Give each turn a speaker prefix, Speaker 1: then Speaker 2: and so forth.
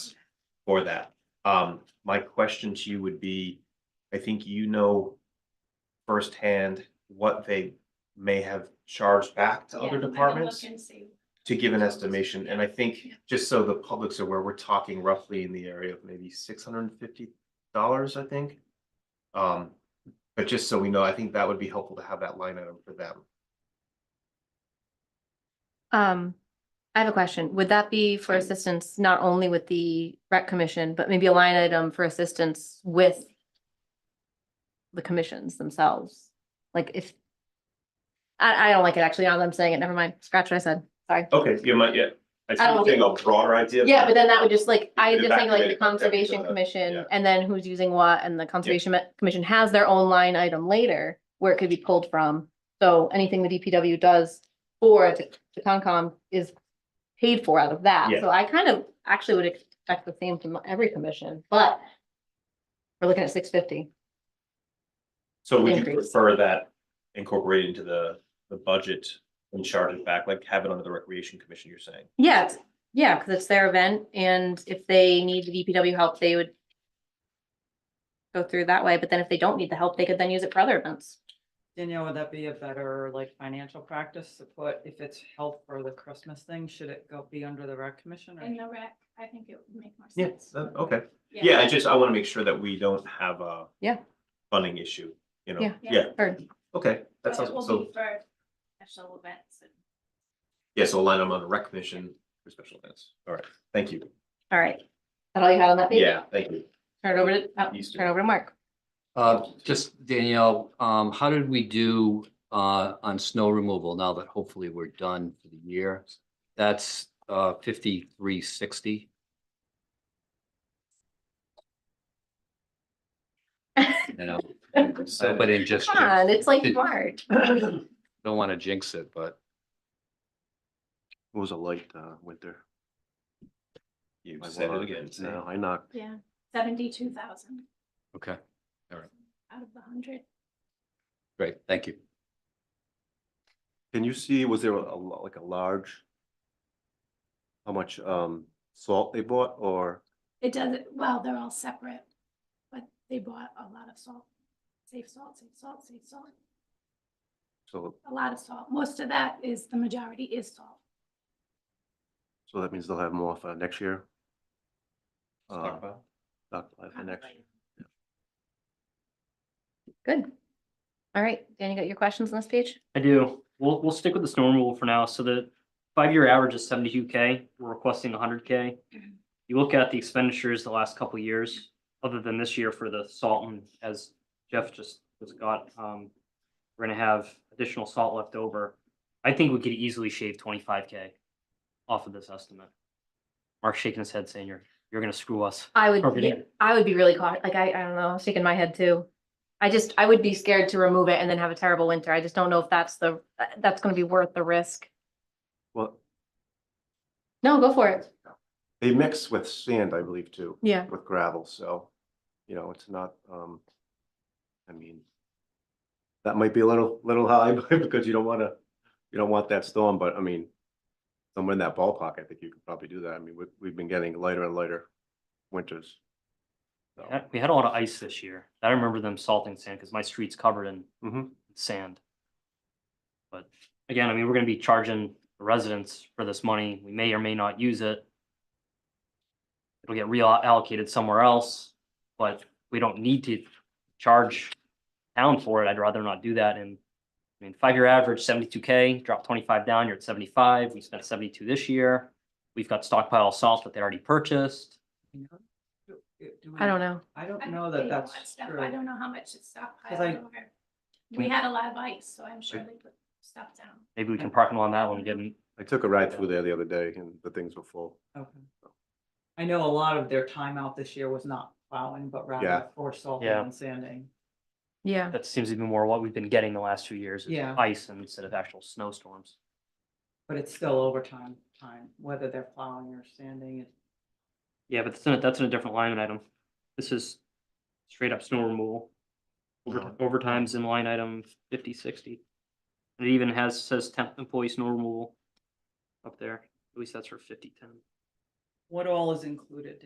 Speaker 1: for that. Um, my question to you would be, I think you know firsthand what they may have charged back to
Speaker 2: Yeah, I
Speaker 1: other
Speaker 2: will look
Speaker 1: departments
Speaker 2: and see.
Speaker 1: to give an estimation. And I think,
Speaker 2: Yeah.
Speaker 1: just so the public's aware, we're talking roughly in the area of maybe six hundred and fifty dollars, I think. Um, but just so we know, I think that would be helpful to have that line item for them.
Speaker 3: Um, I have a question. Would that be for assistance not only with the rec commission, but maybe a line item for assistance with the commissions themselves? Like if I, I don't like it actually. Now that I'm saying it, never mind. Scratch what I said. Sorry.
Speaker 1: Okay, you might, yeah. I
Speaker 3: I don't-
Speaker 1: a broader idea.
Speaker 3: Oh, Yeah, but then that would just like, I
Speaker 1: Could
Speaker 3: just think like the
Speaker 1: evacuate it, okay,
Speaker 3: conservation
Speaker 1: uh, yeah.
Speaker 3: commission and then who's using what and the conservation Me- commission has their own line item later where it could be pulled from. So anything the DPW does for the the Concom is paid for out of that.
Speaker 1: Yeah.
Speaker 3: So I kind of actually would expect the same from every commission, but we're looking at six fifty.
Speaker 1: So would you
Speaker 3: Increase.
Speaker 1: prefer that incorporated into the, the budget and charge it back, like have it under the recreation commission, you're saying?
Speaker 3: Yeah, it's- yeah, because it's their event and if they need the DPW help, they would go through that way. But then if they don't need the help, they could then use it for other events.
Speaker 4: Danielle, would that be a better like financial practice to put, if it's help for the Christmas thing, should it go be under the rec commission or?
Speaker 2: In the rec, I think it would make more sense.
Speaker 1: Yes, okay. oh, Yeah, I just, I want to make sure that we don't have a
Speaker 3: Yeah.
Speaker 1: funding issue, you know?
Speaker 3: Yeah.
Speaker 1: Yeah,
Speaker 3: Or
Speaker 1: okay,
Speaker 2: But
Speaker 1: that sounds,
Speaker 2: it will
Speaker 1: so,
Speaker 2: be for special events and.
Speaker 1: yeah, so align them on the rec commission for special events. All right, thank you.
Speaker 3: All right. Is That all you had on that page?
Speaker 1: Yeah, thank you.
Speaker 3: Turn it over to, oh,
Speaker 1: Used to.
Speaker 3: turn it over to Mark.
Speaker 5: Uh, just Danielle, um, how did we do, uh, on snow removal now that hopefully we're done for the year? That's, uh, fifty-three sixty. You know, so, but in just,
Speaker 3: Come on, it's like
Speaker 5: Did-
Speaker 3: March.
Speaker 5: don't want to jinx it, but
Speaker 6: It was a light uh winter.
Speaker 1: You
Speaker 6: My
Speaker 1: said it
Speaker 6: wallet
Speaker 1: again.
Speaker 6: is Now I knocked.
Speaker 2: Yeah, seventy-two thousand
Speaker 5: okay,
Speaker 2: out of the hundred.
Speaker 5: great, thank you.
Speaker 6: Can you see, was there a lo- like a large? How much um salt they bought or,
Speaker 2: It doesn't, well, they're all separate, but they bought a lot of salt. Safe salt, safe salt, safe salt,
Speaker 6: so
Speaker 2: a lot of salt. Most of that is, the majority is salt.
Speaker 6: so that means they'll have more for next year? Uh,
Speaker 1: Stockpile?
Speaker 6: stockpile for next, year.
Speaker 3: Good. All right, Dan, you got your questions on this page?
Speaker 7: I do. We'll, we'll stick with the storm rule for now. So the five-year average is seventy-two K. We're requesting hundred K. You look at the expenditures the last couple of years, other than this year for the salt and as Jeff just was got, um, we're gonna have additional salt left over. I think we could easily shave twenty-five K off of this estimate. Mark's shaking his head saying, you're, you're gonna screw us.
Speaker 3: I would,
Speaker 7: Perfect.
Speaker 3: yeah, I would be really caught, like, I, I don't know, I was shaking my head too. I just, I would be scared to remove it and then have a terrible winter. I just don't know if that's the, that's gonna be worth the risk.
Speaker 6: well,
Speaker 3: No, go for it.
Speaker 6: they mix with sand, I believe, too,
Speaker 3: Yeah.
Speaker 6: with gravel, so, you know, it's not um. I mean. That might be a little, little high because you don't wanna, you don't want that storm, but I mean. Somewhere in that ballpark, I think you could probably do that. I mean, we've, we've been getting lighter and lighter winters. So,
Speaker 7: Yeah, We had a lot of ice this year. I remember them salting sand because my street's covered in
Speaker 6: Mhm.
Speaker 7: sand. But again, I mean, we're gonna be charging the residents for this money. We may or may not use it. It'll get reallocated somewhere else, but we don't need to charge town for it. I'd rather not do that and I mean, five-year average seventy-two K, drop twenty-five down, you're at seventy-five. We spent seventy-two this year. We've got stockpile of salt that they already purchased.
Speaker 4: You know? Do- do
Speaker 3: I don't
Speaker 4: we-
Speaker 3: know.
Speaker 4: I don't know that
Speaker 2: They bought
Speaker 4: that's
Speaker 2: stuff.
Speaker 4: true.
Speaker 2: I don't know how much it's
Speaker 4: I-
Speaker 2: stockpiled or,
Speaker 1: Mm.
Speaker 2: we had a lot of ice, so I'm sure they put stuff down.
Speaker 7: Maybe we can park on that one and get an
Speaker 6: I took a ride through there the other day and the things were full.
Speaker 4: Okay. I know a lot of their time out this year was not plowing, but rather
Speaker 6: Yeah.
Speaker 4: for salting
Speaker 7: Yeah.
Speaker 4: and sanding.
Speaker 3: Yeah.
Speaker 7: That seems to be more what we've been getting the last few years. is
Speaker 4: Yeah.
Speaker 7: Ice and instead of actual snowstorms.
Speaker 4: But it's still overtime time, whether they're plowing or sanding. it-
Speaker 7: Yeah, but that's in, a- that's in a different line item. This is straight up snow removal. Over- Overtime's in line item fifty sixty. And it even has, says temp employee snow removal up there. At least that's for fifty ten.
Speaker 4: What all is included?